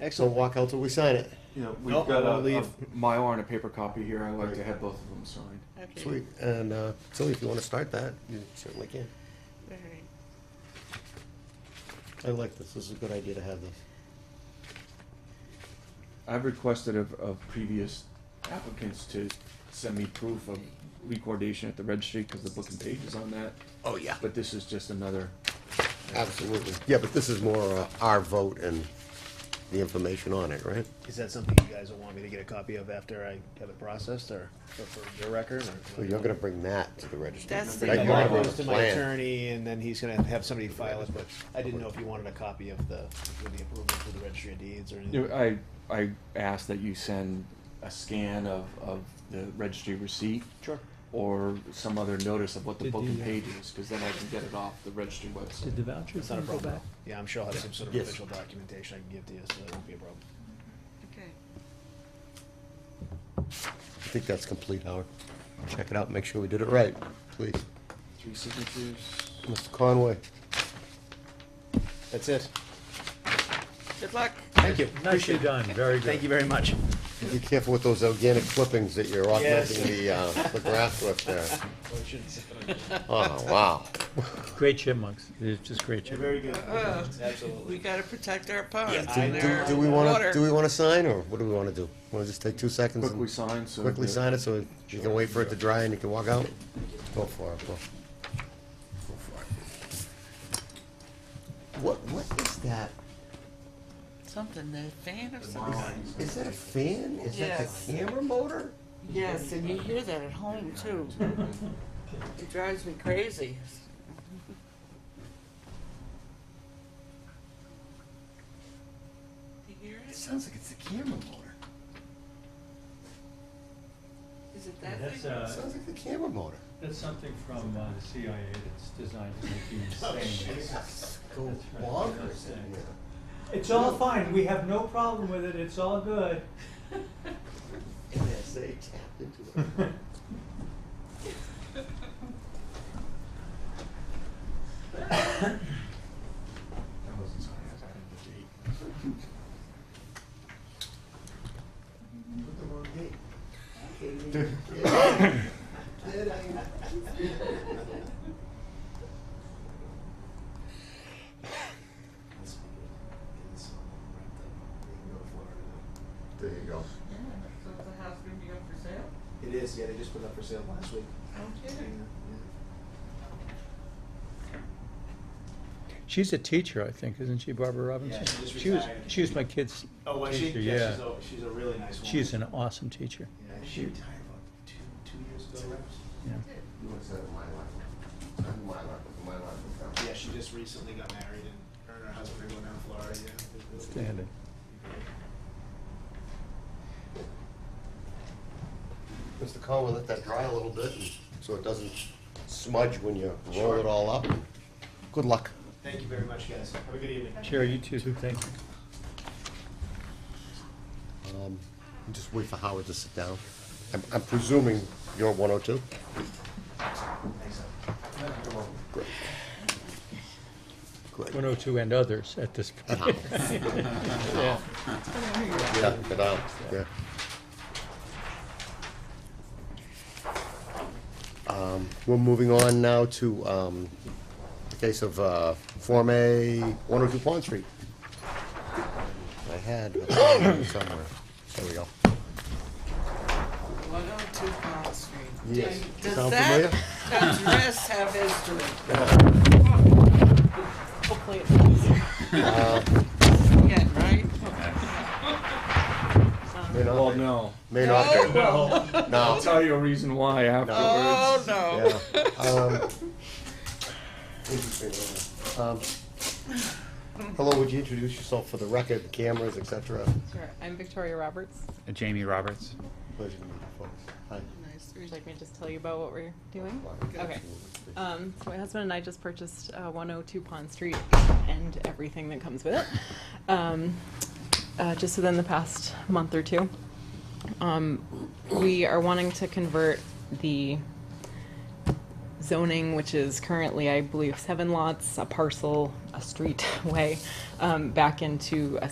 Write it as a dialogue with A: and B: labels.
A: Excellent, Wackel, till we sign it.
B: You know, we've
A: Nope,
B: got
A: I
B: a, a
A: wanna leave.
B: Mylar and a paper copy here. I'd like to
A: Right.
B: have both of them signed.
C: Okay.
A: Sweet, and uh, Tilly, if you want to start that, you certainly can.
C: All right.
A: I like this, this is a good idea to have this.
B: I've requested of, of previous applicants to send me proof of recordation at the registry because the book and page is on that.
A: Oh, yeah.
B: But this is just another,
A: Absolutely, yeah, but this is more uh, our vote and the information on it, right?
D: Is that something you guys will want me to get a copy of after I have it processed, or or for your record, or?
A: So you're gonna bring that to the registry.
C: That's the-
A: right?
D: That
A: You're not
D: goes
A: gonna
D: to my
A: plan.
D: attorney, and then he's gonna have somebody file it, but I didn't know if you wanted a copy of the, with the approval through the registry of deeds
B: you
D: or anything.
B: know, I, I ask that you send a scan of, of the registry receipt
D: Sure.
B: or some other notice of what the
E: Did
B: book and
E: the, uh,
B: page is, because then I can get it off the registry website.
E: Did the vouchers
D: It's not a
E: thing go
D: problem.
E: back?
D: Yeah, I'm sure I'll have some sort of
A: Yes.
D: official documentation I can give to you, so that won't be a problem.
C: Okay.
A: I think that's complete, Howard. Check it out, make sure we did it right, please.
B: Three signatures.
A: Mr. Conway,
D: That's it.
C: Good luck.
D: Thank you.
E: Nicely
D: Appreciate it.
E: done, very
D: Thank
E: good.
D: you very much.
A: be careful with those organic clippings that you're
D: Yes.
A: augmenting the, uh, the grass with there.
D: Well, it shouldn't sit on you.
A: Oh, wow.
E: Great chipmunks, they're just great
D: You're
E: chipmunks.
D: very good.
C: Uh,
D: Absolutely.
C: We gotta protect our ponds
D: Yeah,
C: and
A: Do, do-
C: our
A: do we wanna,
C: water.
A: do we wanna sign, or what do we wanna do? Wanna just take two seconds
B: Quickly
A: and
B: sign, so.
A: quickly
B: that-
A: sign it, so you can wait for it to dry and you can walk out? Go for it, go. Go for it. What, what is that?
C: Something, the fan or
B: Wow.
C: something.
A: Is that a fan? Is that
C: Yes.
A: the camera motor?
C: Yes, and you hear that at home too. It drives me crazy. You hear
A: It
C: it?
A: sounds like it's the camera motor.
C: Is it that
E: That's,
C: thing?
A: It
E: uh,
A: sounds like the camera motor.
E: that's something from uh, the CIA that's designed to make you
D: Oh,
A: Go
E: insane. That's right.
A: bonkers in here.
E: It's all fine, we have no problem with it, it's all good.
A: NSA tapped into it.
B: That wasn't signed, I added the date.
A: Put the wrong date. Kidding me. Kidding. Kidding. There you go.
C: Yeah, so is the house gonna be up for sale?
D: It is, yeah, they just put it up for sale last week.
C: I'm kidding.
E: She's a teacher, I think, isn't she, Barbara Robinson?
D: Yeah, she just
E: was,
D: retired.
E: she was my kid's
D: Oh, was she?
E: teacher, yeah.
D: she's, a, she's a really nice woman.
E: She's an awesome teacher,
D: Yeah, she retired about two, two years ago, right?
E: yeah.
A: You want to set my life? Not my life, but my life.
D: Yeah, she just recently got married and her and her husband are going down to Florida, yeah. It was really-
E: Outstanding.
A: Mr. Conway, let that dry a little bit, and- so it doesn't smudge when you roll it all up. Good luck.
D: Thank you very much, guys. Have a good evening.
E: Sherry, you too, thank you.
A: Um, Just wait for Howard to sit down. I'm- I'm presuming you're 102?
D: Thanks, Al.
A: Great. Great.
E: 102 and others at this point. Yeah.
A: Yeah, get out, yeah. Um, We're moving on now to um, the case of uh, Form A, 102 Pond Street. I had a copy somewhere. There we go.
C: One oh two Pond Street.
A: Yes.
C: Does
A: Sound
C: that
A: familiar?
C: address have history? Hopefully it
A: Uh,
C: does. Yeah, right?
A: May not
B: Well,
A: be.
B: no.
A: May not be.
C: No.
B: I'll
A: Oh, No.
B: tell you a reason why
C: Oh,
B: afterwards.
C: no.
A: Yeah. Um, interesting. Um, Hello, would you introduce yourself for the record, cameras, et cetera?
F: Sure. I'm Victoria Roberts.
G: Jamie Roberts.
A: Pleasure to meet you folks. Hi.
C: Nice.
F: Would you like me to just tell you about what we're doing? Okay.
A: Absolutely.
F: Um, so my husband and I just purchased uh, 102 Pond Street and everything that comes with it. Um, uh, just within the past month or two, um, we are wanting to convert the zoning, which is currently, I believe, seven lots, a parcel, a streetway, um, back into a